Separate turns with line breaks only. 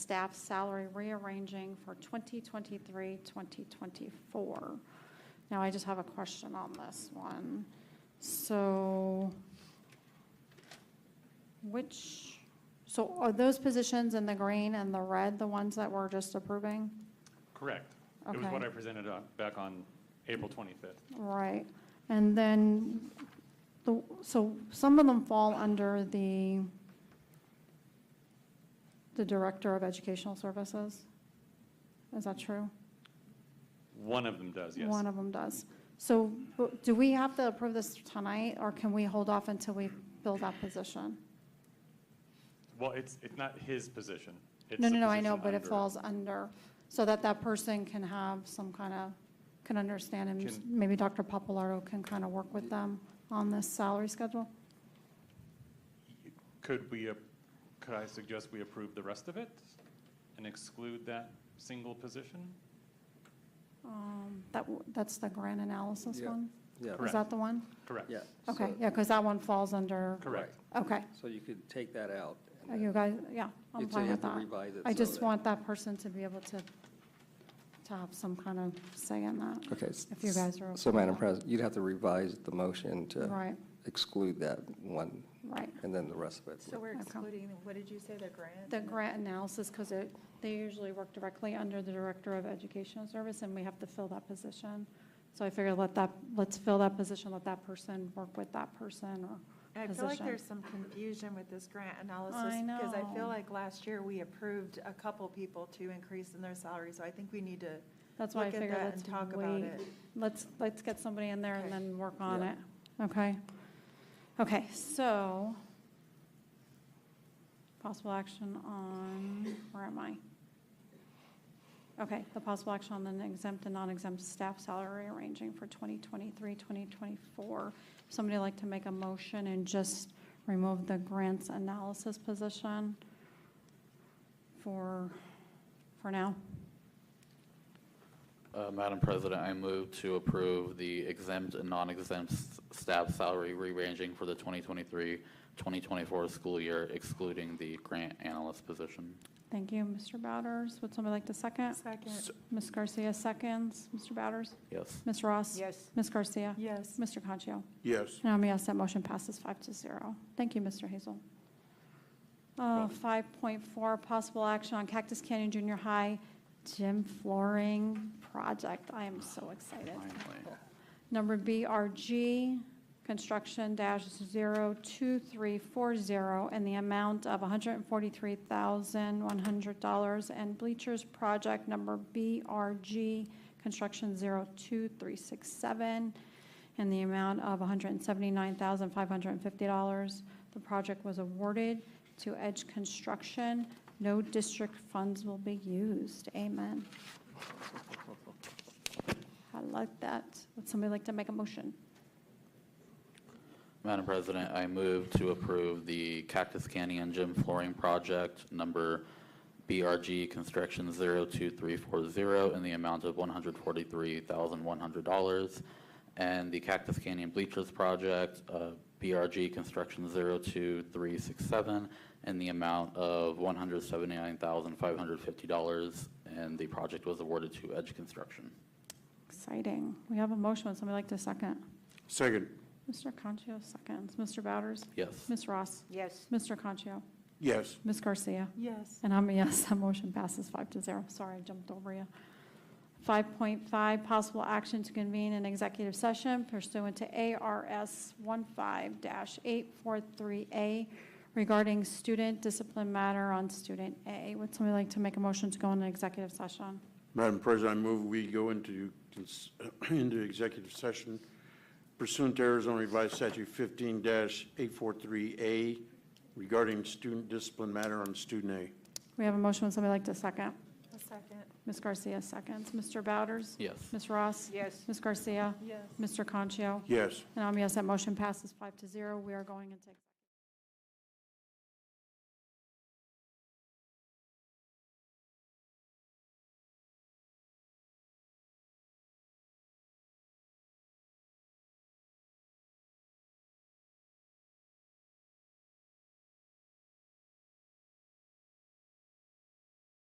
staff salary rearranging for 2023, 2024. Now, I just have a question on this one. So which, so are those positions in the green and the red the ones that we're just approving?
Correct. It was what
Okay.
I presented on- back on April 25th.
Right, and then, the so some of them fall under the, the Director of Educational Services? Is that true?
One of them does, yes.
One of them does. So w- do we have to approve this tonight, or can we hold off until we fill that position?
Well, it's, it's not his position. It's
No,
the
no, no, I know,
position
but it
under-
falls under, so that that person can have some kind of, can understand, and
Can-
maybe Dr. Papalardo can kind of work with them on this salary schedule?
Could we, ap- could I suggest we approve the rest of it and exclude that single position?
Um, That, w- that's the grant analysis
Yeah.
one?
Yeah,
Is
Correct.
that the one?
Correct.
yeah.
Okay,
so-
yeah, because that one falls under,
Correct.
okay,
So you could take that out. and
Uh,
then
you guys, yeah, I'm
you'd say
fine
you
with
have to
that.
revise it
I
so
just
that-
want that person to be able to, to have some kind of say in that.
Okay. s-
If you guys are
So
okay
Madam
with
President, you'd have to revise the motion to
Right,
exclude that one
right.
and then the rest of it.
So we're
Okay.
excluding, what did you say, the grant?
The grant analysis, because it, they usually work directly under the Director of Educational Service, and we have to fill that position. So I figured let that, let's fill that position, let that person work with that person, or
I feel like
position.
there's some confusion with this grant analysis.
I
Because I
know.
feel like last year we approved a couple people to increase in their salary, so I think we need to
that's why I
look at
figured
that
let's
and talk about
wait.
it.
Let's, let's get somebody in there and
Okay.
then work on
Yeah.
it, okay? Okay, so possible action on, where am I? Okay, the possible action on the exempt and non-exempt staff salary arranging for 2023, 2024. Somebody like to make a motion and just remove the grants analysis position for, for now?
Uh, Madam President, I move to approve the exempt and non-exempt s- staff salary re-ranging for the 2023-2024 school year excluding the grant analyst position.
Thank you, Mr. Bowders. Would somebody like to second?
Second,
Ms. Garcia seconds. Mr. Bowders?
Yes.
Ms. Ross?
yes.
Ms. Garcia?
Yes.
Mr. Concho?
Yes,
And I'm a yes, that motion passes five to zero. Thank you, Mr. Hazel. Uh, 5.4, possible action on Cactus Canyon Junior High gym flooring project. I am so excited.
Finally.
Number BRG, construction dash 02340, in the amount of $143,100. And bleachers project number BRG, construction 02367, in the amount of $179,550. The project was awarded to Edge Construction. No district funds will be used. Amen. I like that. Would somebody like to make a motion?
Madam President, I move to approve the Cactus Canyon Gym Flooring Project number BRG Construction 02340 in the amount of $143,100, and the Cactus Canyon Bleachers Project, uh, BRG Construction 02367 in the amount of $179,550, and the project was awarded to Edge Construction.
Exciting. We have a motion. Would somebody like to second?
second,
Mr. Concho seconds. Mr. Bowders?
Yes.
Ms. Ross?
Yes.
Mr. Concho?
yes,
Ms. Garcia?
Yes.
And I'm a yes, that motion passes five to zero. Sorry, I jumped over you. 5.5, possible action to convene an executive session pursuant to ARS 15-843A regarding student discipline matter on student A. Would somebody like to make a motion to go in an executive session?
Madam President, I move we go into, cons- into executive session pursuant to Arizona Revised Statute fifteen eight four three A regarding student discipline matter on student A.
We have a motion. Would somebody like to second?
A second,
Ms. Garcia seconds. Mr. Bowders?
Yes.
Ms. Ross?
Yes.
Ms. Garcia?
yes.
Mr. Concho?
Yes.
And I'm a yes, that motion passes five to zero. We are going into.